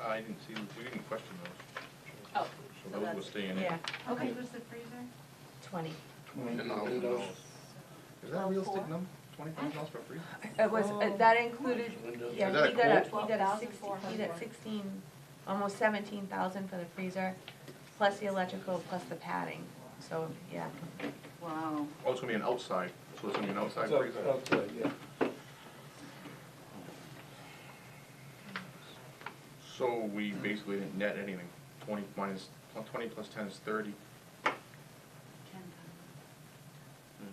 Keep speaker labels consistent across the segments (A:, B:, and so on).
A: I didn't see, you didn't question those.
B: Oh,
A: So those were staying in.
C: Yeah,
B: okay.
D: What was the freezer?
C: twenty.
A: Twenty thousand dollars. Is that a realistic number? Twenty thousand dollars for free?
C: It was, uh, that included, yeah,
A: Is that
C: he
A: a
C: got a,
B: quote?
C: he got a sixteen, he got
B: 12,400.
C: sixteen, almost seventeen thousand for the freezer, plus the electrical, plus the padding, so, yeah.
D: Wow.
A: Oh, it's gonna be an outside, so it's gonna be an outside
E: It's uh, up-
A: freezer.
E: up to, yeah.
A: So we basically didn't net anything. Twenty minus, twenty plus ten is thirty. And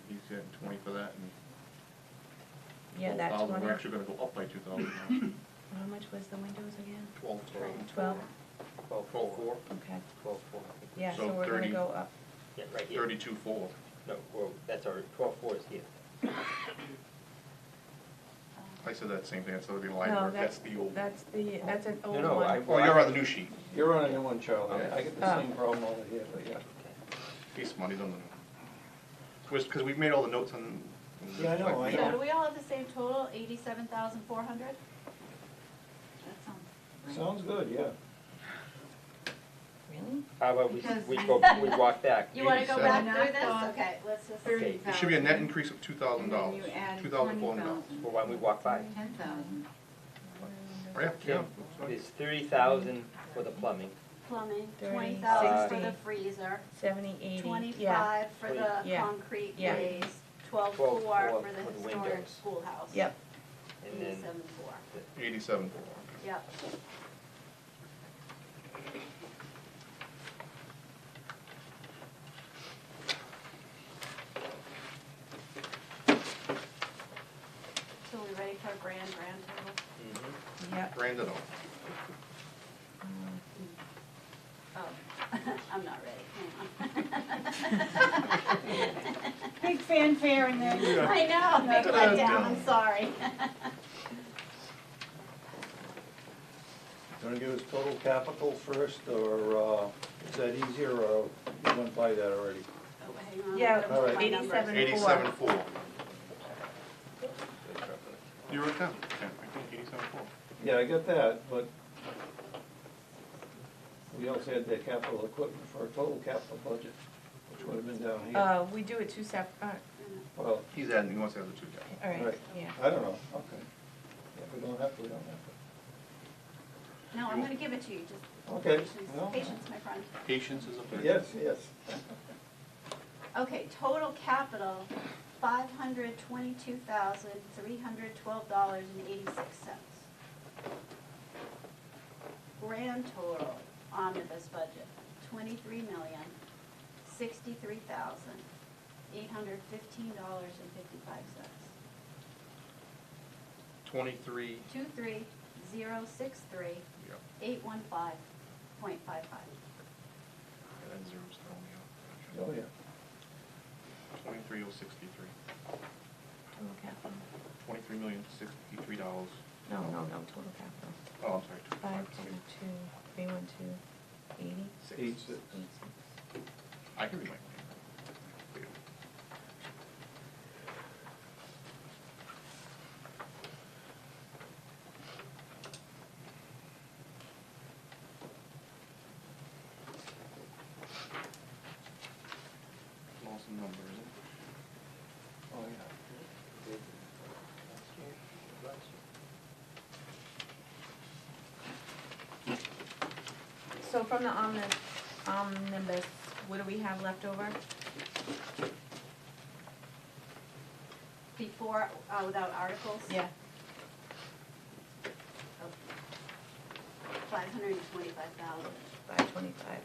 A: He's getting twenty for that and.
C: Yeah, that
A: 12,000.
C: twenty,
A: We're actually gonna go up by two thousand now.
C: how much was the windows again?
A: Twelve,
C: Twelve,
E: Twelve,
A: twelve, four,
C: okay,
E: Twelve, four, I think.
C: yeah,
A: So
C: so we're
A: 30.
C: gonna go up,
F: Yeah, right here.
A: thirty-two, four.
F: No, well, that's our, twelve four is here.
A: I said that same thing, that's the line
C: no,
A: work, that's
C: that's,
A: the old.
C: that's the, that's an old
E: no, I-
C: one.
A: Oh, you're on the new sheet.
E: You're on a new one, Charlie, I get the
C: Oh.
E: same problem over here, but yeah.
A: Piece money's on the. because we've made all the notes on.
E: Yeah, I know, I
B: So
E: know.
B: do we all have the same total, eighty-seven thousand four hundred?
D: That sounds right.
E: Sounds good, yeah.
C: Really?
F: How about we,
D: Because-
F: we go, we walk back?
B: You wanna go back
A: Eighty-seven.
B: through this?
D: Knocked
B: Okay, let's just.
F: Okay.
D: Thirty
A: It should be a net
D: thousand.
A: increase of two thousand
D: And then
A: dollars,
D: you add
A: two thousand four hundred dollars.
D: 20,000.
F: Well, why don't we walk by?
D: Ten thousand.
A: Oh, yeah, yeah.
F: Kim,
A: that's fine.
F: There's thirty thousand for the plumbing,
B: Plumbing,
C: Thirty,
B: twenty thousand for
C: sixty.
B: the freezer,
C: Seventy, eighty, yeah,
B: twenty-five for the
C: Yeah.
B: concrete
C: Yeah.
B: ways, twelve-four
F: 12,400
B: for
F: for the
B: the historic
F: windows.
B: schoolhouse.
C: yep,
F: and then,
B: Eighty-seven-four,
A: Eighty-seven.
B: yep. So we ready for grand, grand total?
F: Mhm.
C: yep.
A: Grand it all.
C: Um,
B: Oh, I'm not ready, hang on.
D: Big fanfare in there.
B: I know, big letdown, I'm sorry. Oh,
E: Gonna give us total capital first, or, uh, is that easier, or you went by that already?
B: Oh, hang on, I'm
C: Yeah,
B: gonna put my
C: 87.
B: numbers.
A: Eighty-seven, four. You wrote it down, yeah, I think eighty-seven, four.
E: Yeah, I got that, but we also had the capital equipment for a total capital budget, which would have been down here.
C: Uh, we do it two sep, uh,
E: Well,
A: He's adding, he wants to have the two down.
C: all right,
E: Right.
C: yeah.
E: I don't know, okay. If we don't have to, we don't have
B: No, I'm gonna give it to you, just
E: to. Okay.
B: patience,
E: well,
B: patience, my friend.
A: Patience is a virtue.
E: Yes, yes.
B: Okay, total capital, five hundred twenty-two thousand, three hundred twelve dollars and eighty-six cents. Grand total omnibus budget, twenty-three million, sixty-three thousand, eight hundred fifteen dollars and fifty-five cents.
A: Twenty-three,
B: Two three zero six three
A: yeah,
B: eight one five point five five.
A: that zero's
E: Oh,
A: throwing me
E: yeah.
A: off. Twenty-three oh sixty-three.
C: Total capital,
A: Twenty-three million, sixty-three dollars.
C: no, no, no, total capital.
A: Oh, I'm sorry. two-
C: Five, two,
A: twenty-
C: two, three, one, two, eighty,
A: six.
E: Eight, six.
C: eight, six.
A: I can read my. Lost a number, is it?
E: Oh, yeah.
C: So from the omnibus, omnibus, what do we have left over?
B: Before, uh, without articles?
C: Yeah,
B: Five hundred and twenty-five thousand.
C: five twenty-five.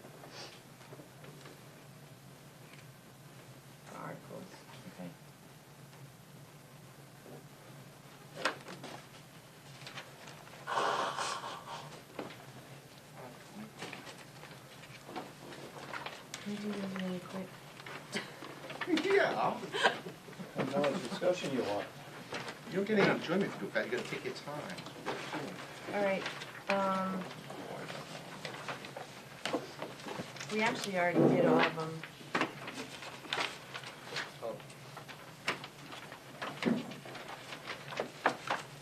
C: Articles, okay. Can we do this really quick?
A: Yeah.
E: How much discussion you want?
A: You're getting enjoyment from that, you gotta take your time.
C: All right, um,
A: Oh,
C: we actually already did all of them.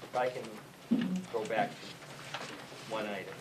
F: If I can go back to one item.